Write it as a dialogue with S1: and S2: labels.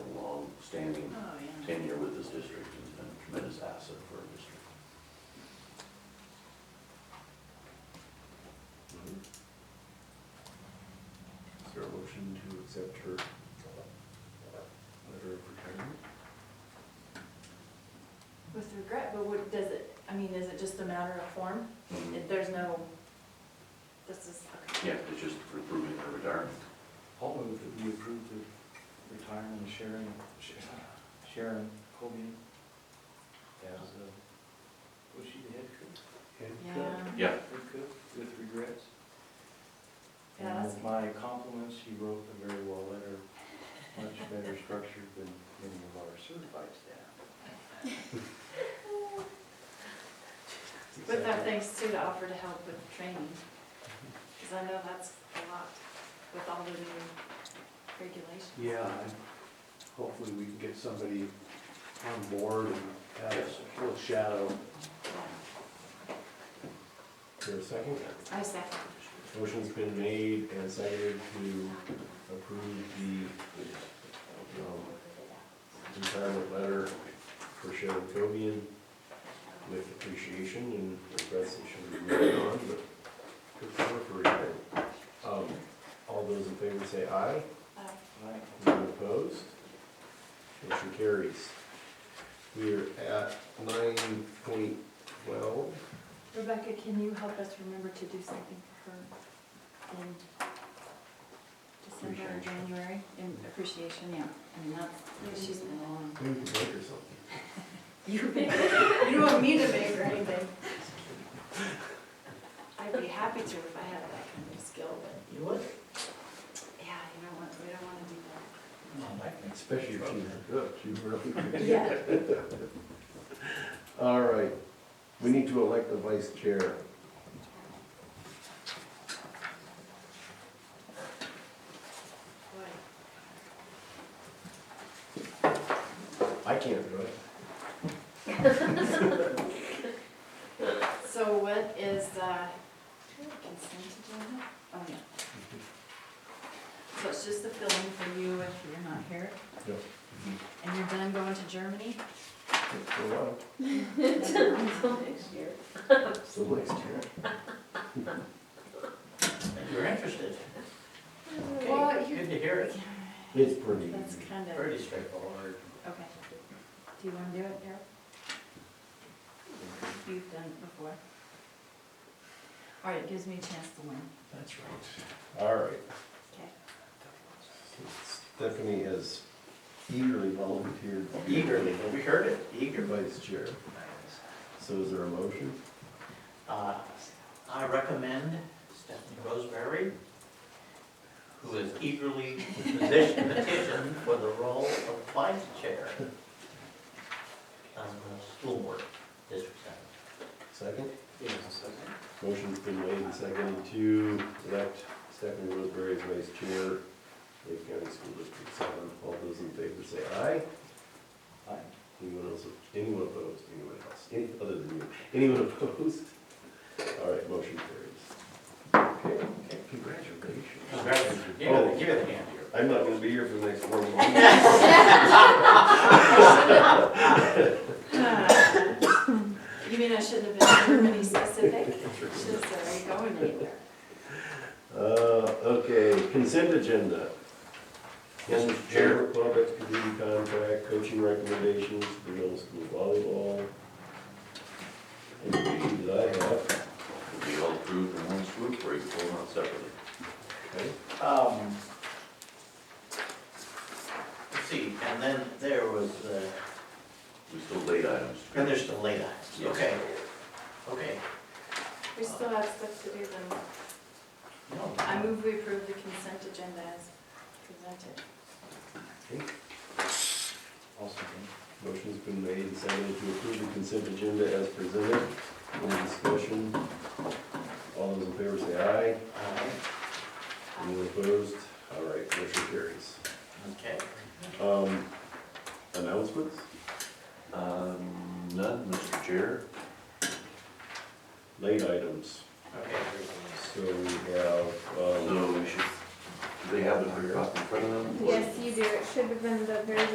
S1: outstanding
S2: Oh, yeah.
S1: tenure with this district, and has been a tremendous asset for our district.
S3: Is there a motion to accept her letter of retirement?
S2: With regret, but what, does it, I mean, is it just a matter of form?
S1: Mhm.
S2: If there's no, this is, okay.
S1: Yeah, it's just for approving her retirement.
S4: I'll move that we approve the retirement of Sharon, Sh- Sharon Colby as, uh, was she the head cook?
S2: Yeah,
S1: Yeah,
S4: Head cook with regrets.
S2: Yeah,
S4: And with my compliments, she wrote a very well letter, much better structured than many of our certified staff.
S2: with our thanks too, to offer to help with training, because I know that's a lot with all the new regulations.
S5: Yeah, and hopefully we can get somebody on board and have a little shadow.
S3: Is there a second?
S2: I second.
S3: Motion's been made and seconded to approve the um, retirement letter for Sharon Covian with appreciation and regrets that she will be moving on, but good for her for retiring. Um, All those in favor say aye.
S2: Uh,
S4: Aye.
S3: None opposed? Motion carries. We are at nine point twelve.
S2: Rebecca, can you help us remember to do something for her in December or
S1: Appreciation.
S2: January? In appreciation, yeah, I mean, that's, she's been along.
S3: Maybe we can make her something.
S2: You make, you don't want me to make or anything. I'd be happy to if I had that kind of skill, but,
S4: You would?
S2: yeah, you don't want, we don't wanna do that.
S3: Especially if she's good, she's really good.
S2: Yeah.
S3: All right, we need to elect the vice chair.
S2: Boy,
S3: I can't do it.
S2: So what is, uh, consent agenda? Oh, yeah. So it's just the filling for you if you're not here?
S3: Yep.
S2: And you're done going to Germany?
S3: For a while.
S2: Until next year.
S3: So next year.
S6: You're interested.
S2: Well,
S6: Okay,
S2: you-
S6: Good to hear it.
S3: It's pretty
S2: That's
S3: easy.
S2: kind of, okay.
S6: Pretty straightforward.
S2: Do you wanna do it, Daryl? You've done it before. All right, it gives me a chance to win.
S3: That's right. All right.
S2: Okay.
S3: Stephanie has eagerly volunteered. to be
S6: Eagerly, we heard it,
S3: the
S6: eager.
S3: Vice chair. So is there a motion?
S6: Uh, I recommend Stephanie Roseberry, who is eagerly position- petitioned for the role of vice chair on the school board, District Seven.
S3: Second?
S4: Yes, second.
S3: Motion's been made and seconded to elect Stephanie Roseberry as vice chair, Lake County School District Seven. All those in favor say aye.
S4: Aye.
S3: Anyone else, anyone opposed, anyone else, any, other than you, anyone opposed? All right, motion carries. Okay, congratulations.
S6: Congratulations. Give it, give it a hand here.
S3: I'm not gonna be here for the next four months.
S2: You mean I shouldn't have been any specific? Should have said, are you going anywhere?
S3: Uh, okay, consent agenda.
S6: Yes, Mr. Chair.
S3: Club extracurricular contract, coaching recommendations, for middle school volleyball. Anything that I have,
S1: It'll be all approved in one swoop, or you pull them out separately.
S3: okay?
S6: Um, Let's see, and then there was the,
S1: We still late items.
S6: and there's the late eyes.
S1: Yes.
S6: Okay, okay.
S2: We still have stuff to do then.
S6: No.
S2: I move we approve the consent agenda as presented.
S4: I'll second.
S3: Motion's been made and seconded to approve the consent agenda as presented. Any discussion? All those in favor say
S6: Uh,
S3: aye. Anyone opposed? All right, motion carries.
S6: Okay.
S3: Um, announcements?
S1: Um, none, Mr. Chair.
S3: Late items.
S6: Okay, there's
S3: So
S6: the
S3: we have, um.
S1: So we should, do they have the hard copy in front of them?
S7: Yes, you do. It should have been the very